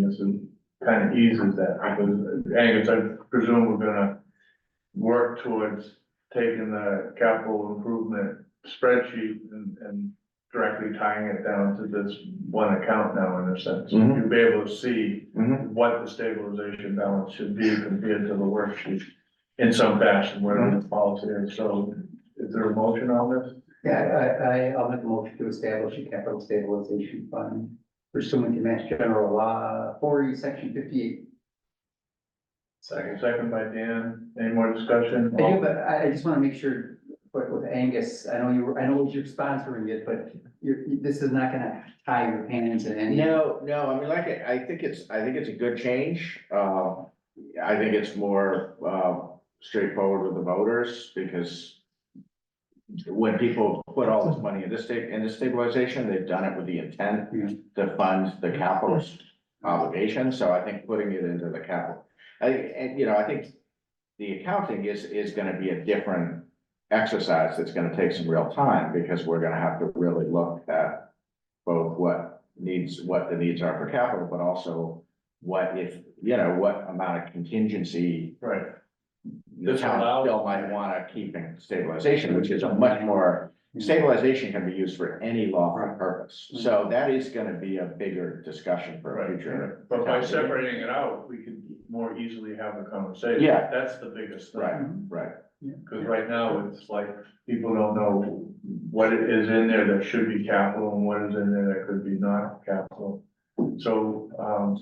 business and kind of eases that, because Angus, I presume we're gonna work towards taking the capital improvement spreadsheet and, and directly tying it down to this one account now in a sense. Mhm. You'll be able to see Mhm. what the stabilization balance should be compared to the worksheet in some fashion, whatever the policy is. So is there a motion on this? Yeah, I, I, I'll make a motion to establish a capital stabilization fund pursuant to Mass General Law forty, section fifty-eight. Second. Second by Dan. Any more discussion? I do, but I, I just wanna make sure, but with Angus, I know you, were- I know you're sponsoring it, but you're, this is not gonna tie your hands in any. No, no, I mean, like, I think it's, I think it's a good change. Uh, I think it's more, uh, straightforward with the voters because when people put all this money into sta- into stabilization, they've done it with the intent Yeah. to fund the capital obligation, so I think putting it into the capital. I, and, you know, I think the accounting is, is gonna be a different exercise that's gonna take some real time, because we're gonna have to really look at both what needs, what the needs are for capital, but also what if, you know, what amount of contingency Right. the This town allows- still might wanna keep in stabilization, which is a much more, stabilization can be used for any lawful purpose. So that is gonna be a bigger discussion for Right, future. right. but by separating it out, we could more easily have a conversation. Yeah. That's the biggest thing. Right. Mhm. Right, Uh, Cause right now, it's like, people don't know what it is in there that should be capital and what is in there that could be not capital. So, um,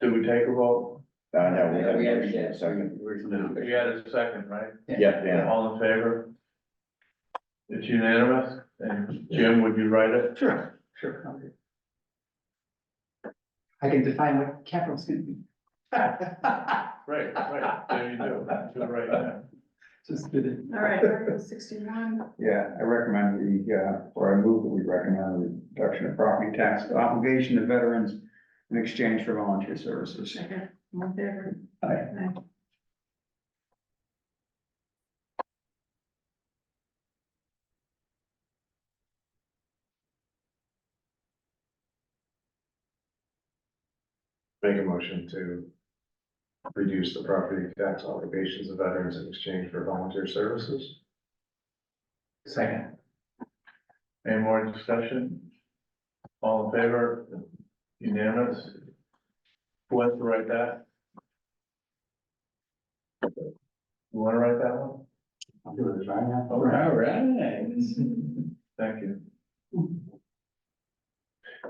do we take a vote? uh, no, we Yeah, have we a have, motion, yeah, a second. Where's the number? We had a second, right? Yeah, yeah. All in favor? It's unanimous, and Jim, would you write it? Sure. Sure. okay. I can define what capital's gonna be. Right, right, there you go, you're right now. Just did it. All right, Article sixty-one, Yeah, I recommend we, uh, or I move that we recommend a reduction of property tax obligation to veterans in exchange for volunteer services. second, one favor. Aye. Make a motion to reduce the property tax obligations of veterans in exchange for volunteer services. Second. Any more discussion? All in favor? Unanimous? Who wants to write that? You wanna write that one? I'll do it right now. All right. right. Thank you.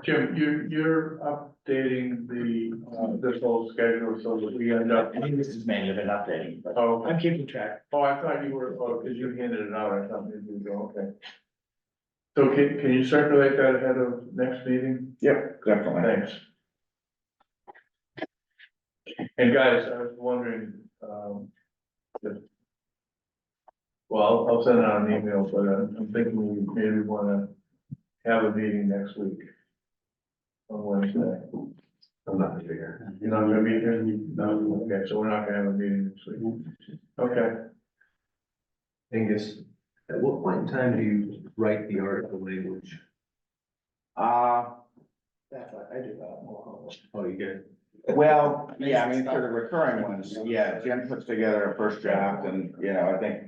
Jim, you, you're updating the, uh, this whole schedule so that we end up, think this is mainly been updating, but. oh, I'm keeping track. oh, I thought you were, oh, cause you handed it out, I thought maybe you go, okay. So can, can you circulate that ahead of next meeting? Yep, definitely. Thanks. And guys, I was wondering, um, if. Well, I'll send out an email, but I'm I'm thinking we maybe wanna have a meeting next week. On Wednesday. I'm not gonna figure. You're not gonna be here? No, Mm-hmm. okay, so we're not gonna have a meeting next week. Okay, Angus, at what point in time do you write the article language? Uh, Oh, you get. well, yeah, I mean, for the recurring ones, yeah, Jim puts together a first draft and, you know, I think.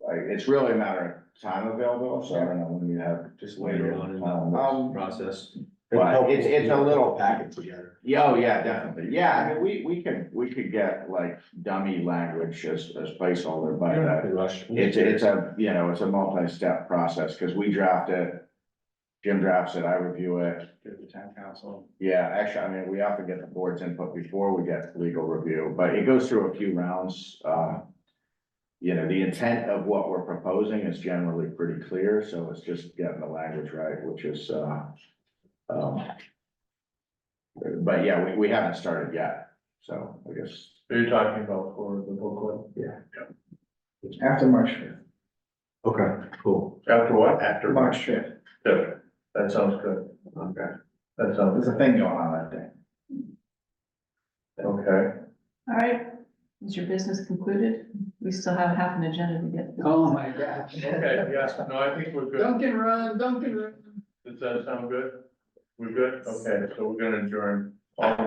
Like, it's really a matter of time available, so I don't know when you have, just later. Um, process. But it's- it's a little- Package together. Yeah, oh, yeah, definitely. Yeah, I mean, we, we can, we could get like dummy language as, as placeholder, but uh, it's, it's a, you know, it's a multi-step process, cause we draft it. Jim drafts it, I review it. the town council. Yeah, actually, I mean, we often get the board's input before we get legal review, but it goes through a few rounds, uh. You know, the intent of what we're proposing is generally pretty clear, so it's just getting the language right, which is, uh. um, But yeah, we, we haven't started yet, so I guess, so you're talking about for the booklet, After March fifth, Okay, cool. after what? After. March fifth, Good. That sounds good, Okay. that sounds, there's a thing going on that day. okay, All right, is your business concluded? We still have half an agenda to get. through. Oh, my gosh. okay, yes, no, I think we're good. Duncan run, Duncan run. Does that sound good? We're good? Okay, so we're gonna adjourn. All in